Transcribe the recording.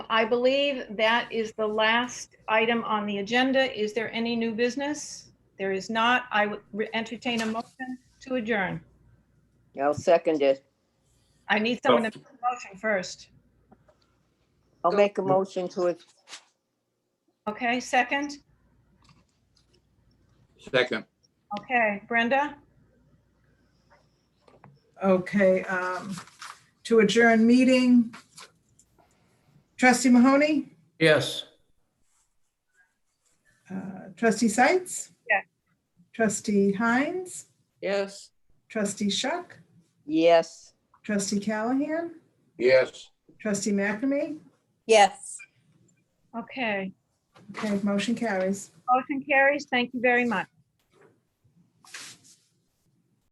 I believe that is the last item on the agenda. Is there any new business? There is not. I would re- entertain a motion to adjourn. I'll second it. I need someone to make a motion first. I'll make a motion to it. Okay, second? Second. Okay, Brenda? Okay, um, to adjourn meeting. Trustee Mahoney, Yes. uh, trustee Sights. Yeah. Trustee Hines, Yes. trustee Shuck, Yes. trustee Callahan, Yes. trustee McNamee. Yes. Okay, Okay, motion carries. motion carries. Thank you very much.